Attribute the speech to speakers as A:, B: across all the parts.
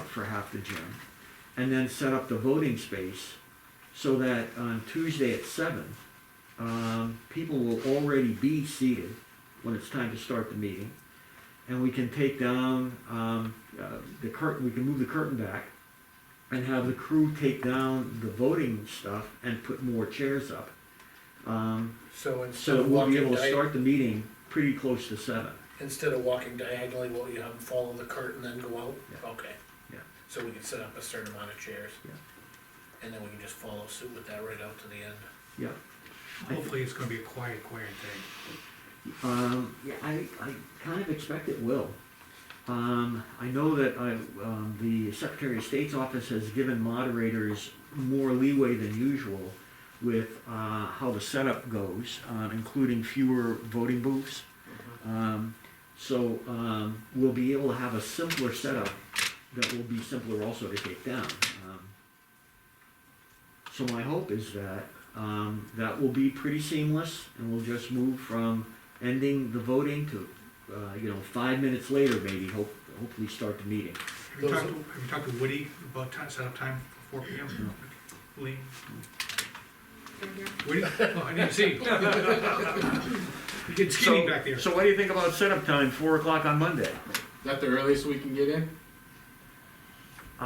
A: for half the gym, and then set up the voting space so that on Tuesday at seven, um, people will already be seated when it's time to start the meeting. And we can take down, um, uh, the curtain, we can move the curtain back and have the crew take down the voting stuff and put more chairs up. Um,
B: So instead
A: so
B: of
A: we'll be
B: walking
A: able to
B: di-
A: start the meeting pretty close to seven.
B: instead of walking diagonally, will you have them follow the curtain and then go out?
A: Yeah.
B: Okay.
A: Yeah.
B: So we can set up a certain amount of chairs.
A: Yeah.
B: And then we can just follow suit with that right out to the end.
A: Yeah.
C: Hopefully it's gonna be a quiet, quiet thing.
A: Um, yeah, I, I kind of expect it will. Um, I know that I, um, the Secretary of State's office has given moderators more leeway than usual with uh, how the setup goes, uh, including fewer voting booths.
C: Uh-huh.
A: Um, so um, we'll be able to have a simpler setup that will be simpler also to take down. Um, so my hope is that um, that will be pretty seamless, and we'll just move from ending the voting to, uh, you know, five minutes later maybe. Hope hopefully start the meeting.
C: Have you talked, to- have you talked to Woody about ti- setup time for four P M?
A: Hmm.
C: Lee? Woody? Oh, I didn't see. you. You get skinny back there.
A: So what do you think about setup time, four o'clock on Monday?
D: Is that the earliest we can get in?
A: Uh,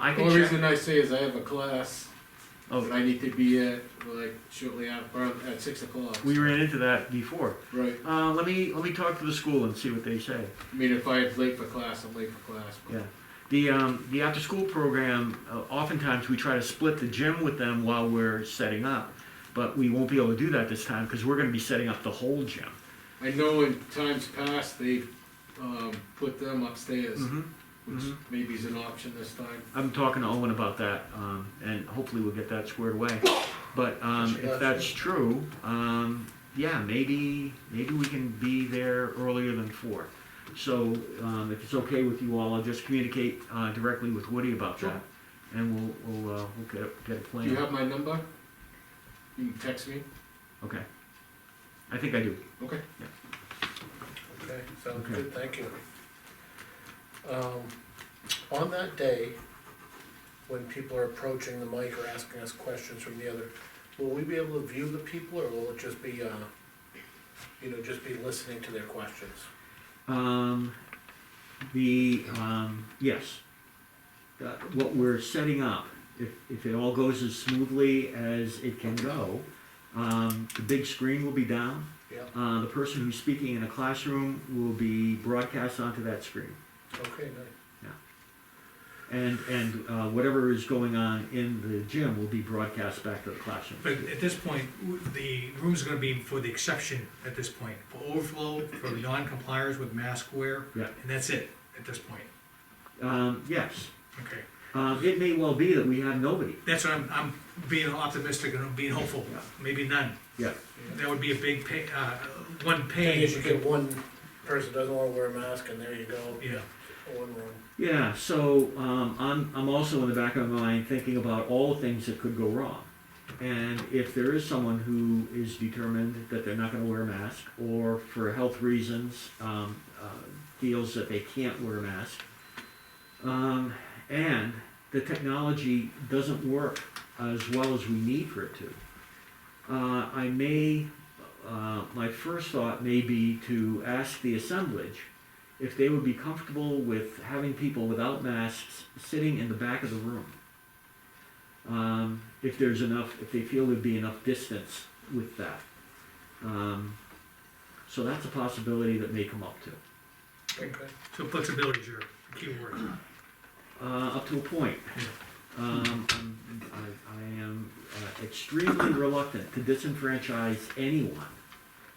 A: I
D: The
A: can
D: only
A: check.
D: reason I say is I have a class
A: Oh.
D: that I need to be at like shortly after, or at six o'clock.
A: We ran into that before.
D: Right.
A: Uh, let me let me talk to the school and see what they say.
D: I mean, if I'm late for class, I'm late for class. but-
A: Yeah. The, um, the after school program, uh, oftentimes we try to split the gym with them while we're setting up, but we won't be able to do that this time because we're going to be setting up the whole gym.
D: I know in times past, they, um, put them upstairs, which
A: mhm.
D: maybe is an option this time.
A: I'm talking to Owen about that, um, and hopefully we'll get that squared away. But um, if that's true, um, yeah, maybe maybe we can be there earlier than four. So um, if it's okay with you all, I'll just communicate uh, directly with Woody about
D: Sure.
A: that, and we'll we'll, uh, we'll get a, get a plan.
D: Do you have my number? You can text me?
A: Okay. I think I do.
D: Okay.
B: Okay, sounds
A: Okay.
B: good, thank you. Um, on that day, when people are approaching the mic or asking us questions from the other, will we be able to view the people, or will it just be, uh, you know, just be listening to their questions?
A: Um, the, um, yes. Uh, What we're setting up, if, if it all goes as smoothly as it can go, um, the big screen will be down.
B: Yeah,
A: Uh, the person who's speaking in a classroom will be broadcast onto that screen.
B: okay, nice,
A: And, and, uh, whatever is going on in the gym will be broadcast back to the classroom.
C: But at this point, w- the room's gonna be for the exception at this point, for overflow, for the non-compliers with mask wear.
A: Yeah.
C: And that's it, at this point,
A: Um, yes.
C: okay.
A: Um, it may well be that we have nobody.
C: That's what I'm, I'm being optimistic and I'm being hopeful,
A: Yeah.
C: maybe none.
A: Yeah.
C: That would be a big pay, uh, one
B: thing
C: pay.
B: is, you get one person doesn't wanna wear a mask, and there you go,
C: Yeah,
B: one room.
A: Yeah, so um, I'm, I'm also in the back of my mind thinking about all the things that could go wrong. And if there is someone who is determined that they're not going to wear a mask or for health reasons um, uh, feels that they can't wear a mask, um, and the technology doesn't work as well as we need for it to, uh, I may, uh, my first thought may be to ask the assemblage if they would be comfortable with having people without masks sitting in the back of the room. Um, if there's enough, if they feel there'd be enough distance with that. Um, so that's a possibility that may come up to,
B: Okay.
C: so flexibility's your key word.
A: uh, up to a point. Um, I'm- I, I am uh, extremely reluctant to disenfranchise anyone,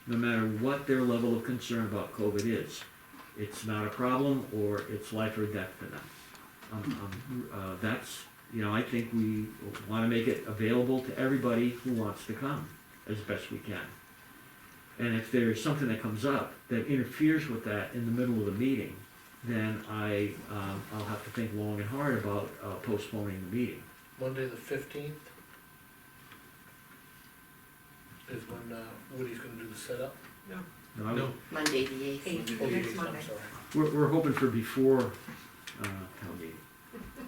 A: no matter what their level of concern about COVID is. It's not a problem, or it's life or death for them. Um, um, uh, that's, you know, I think we wanna make it available to everybody who wants to come as best we can. And if there's something that comes up that interferes with that in the middle of the meeting, then I, um, I'll have to think long and hard about uh, postponing the meeting.
B: Monday the fifteenth is when uh, Woody's gonna do the setup.
A: No, I-
C: No,
E: Monday, the eighth.
B: Oh,
F: Next
B: geez, I'm
F: Monday.
B: sorry.
A: We're, we're hoping for before, uh, town meeting.